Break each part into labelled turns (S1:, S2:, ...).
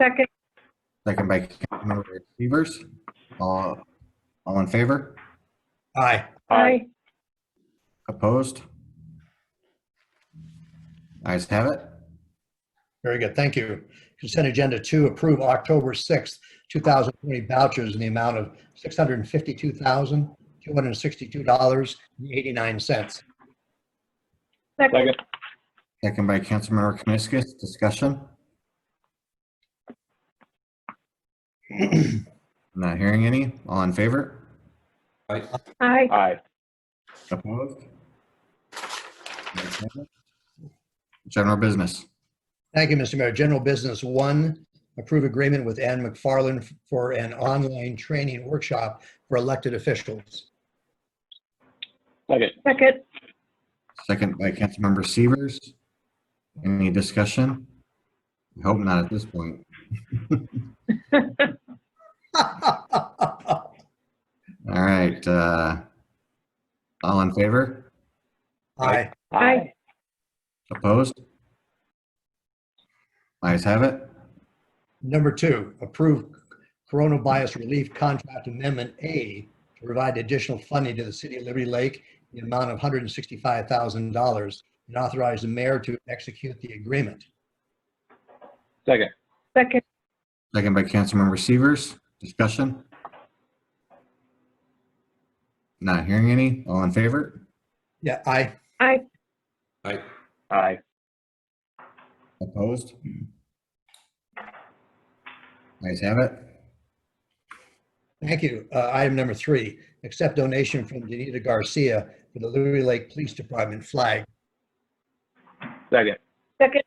S1: Second,
S2: Second by Councilmember Severs. All, all in favor?
S3: Aye.
S1: aye.
S2: Opposed? Ayes have it.
S3: Very good. Thank you. Consent agenda two, approve October 6th, 2020 vouchers in the amount of $652,262.89.
S1: Second,
S4: Second.
S2: Second by Councilmember Kamiskas. Discussion? Not hearing any. All in favor?
S1: aye.
S4: Aye.
S2: Opposed? Ayes have it. General business.
S3: Thank you, Mr. Mayor. General Business One, approve agreement with Ann McFarland for an online training workshop for elected officials.
S4: Second.
S1: Second,
S2: Second by Councilmember Severs. Any discussion? I Hope not at this point. All right, uh, all in favor?
S3: Aye.
S1: aye.
S2: Opposed? Ayes have it.
S3: Number two, approve coronavirus relief contract amendment A to provide additional funding to the city of Liberty Lake in the amount of $165,000 and authorize the mayor to execute the agreement.
S4: Second.
S1: Second,
S2: Second by Councilmember Severs. Discussion? Not hearing any. All in favor?
S3: Yeah, aye.
S1: aye.
S4: Aye.
S2: Opposed? Ayes have it.
S3: Thank you. Uh, Item number three, accept donation from Danita Garcia for the Liberty Lake Police Department flag.
S4: Second.
S1: Second,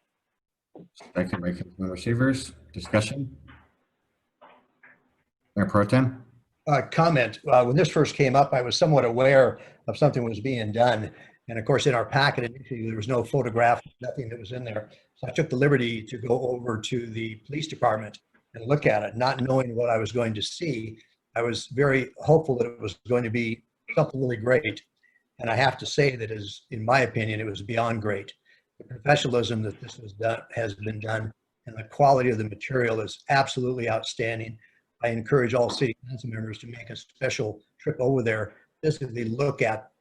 S2: Second by Councilmember Severs. Discussion? Mayor Pro Tem?
S3: uh, comment. Uh, When this first came up, I was somewhat aware of something was being done. And of course, in our packet, initially, there was no photograph, nothing that was in there. So I took the liberty to go over to the police department and look at it, not knowing what I was going to see. I was very hopeful that it was going to be something really great. And I have to say that is, in my opinion, it was beyond great. The professionalism that this was done, has been done, and the quality of the material is absolutely outstanding. I encourage all city council members to make a special trip over there, physically look at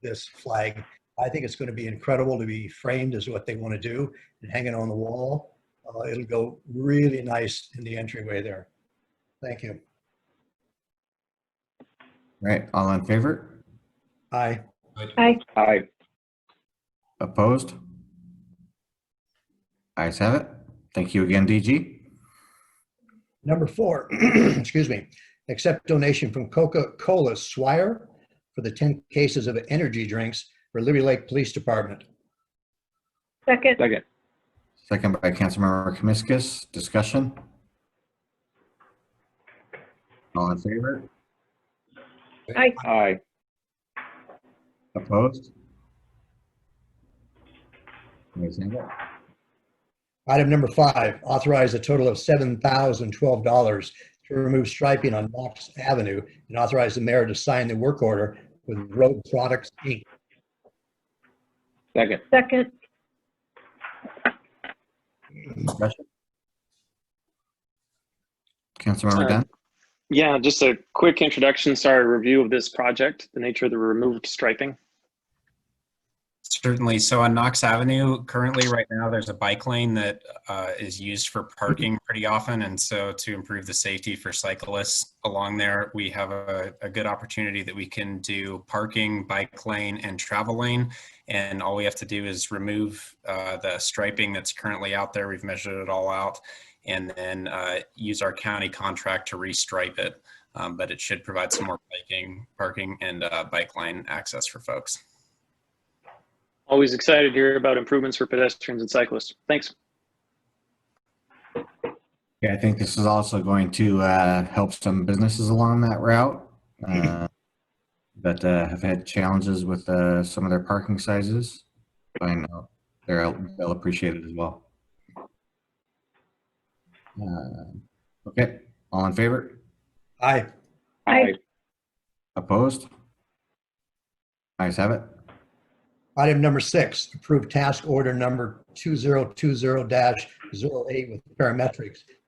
S3: this flag. I think it's going to be incredible to be framed as what they want to do and hang it on the wall. Uh, It'll go really nice in the entryway there. Thank you.
S2: Right, all in favor?
S3: Aye.
S4: Aye.
S2: Opposed? Ayes have it. Thank you again, DG.
S3: Number four, excuse me, accept donation from Coca-Cola Swire for the 10 cases of energy drinks for Liberty Lake Police Department.
S1: second,
S4: Second.
S2: Second by Councilmember Kamiskas. Discussion? All in favor?
S4: Aye.
S2: Opposed? Ayes have it.
S3: Item number five, authorize a total of $7,012 to remove striping on Knox Avenue and authorize the mayor to sign the work order with Road Products, Inc.
S4: Second.
S1: second,
S2: Discussion? Councilmember
S4: Uh,
S2: Dunn?
S4: Yeah, just a quick introduction, sorry, review of this project, the nature of the removed striping.
S5: Certainly. So on Knox Avenue, currently right now, there's a bike lane that uh, is used for parking pretty often. And so to improve the safety for cyclists along there, we have a, a good opportunity that we can do parking, bike lane and travel lane. And all we have to do is remove uh, the striping that's currently out there. We've measured it all out and then uh, use our county contract to restripe it. Um, But it should provide some more biking, parking and uh, bike lane access for folks.
S4: Always excited to hear about improvements for pedestrians and cyclists. Thanks.
S2: Yeah, I think this is also going to uh, help some businesses along that route uh, that uh, have had challenges with uh, some of their parking sizes. I know they're, they'll appreciate it as well. Uh, Okay, all in favor?
S3: Aye.
S1: Aye.
S2: Opposed? Ayes have it.
S3: Item number six, approve task order number 2020-08 with parametrics